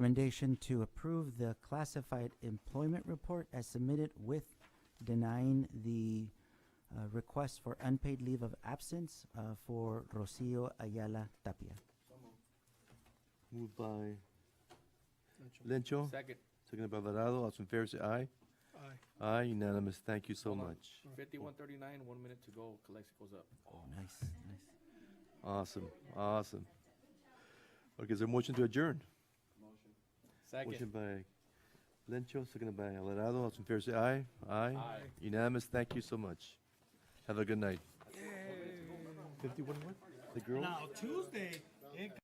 Recommendation to approve the classified employment report as submitted with denying the uh, request for unpaid leave of absence uh, for Rocio Ayala Tapia. Moved by Lencho, Second. seconded by Alvarado. All those in favor say aye. Aye. Aye, unanimous. Thank you so Hold on. much. Fifty-one thirty-nine, one minute to go, Calexico's up. Oh, Nice, nice. Awesome, awesome. Okay, is there a motion to adjourn? Motion Second. by Lencho, seconded by Alvarado. All those in favor say aye. Aye. Aye. Unanimous. Thank you so much. Have a good night. Fifty-one what? The girls? Now Tuesday, it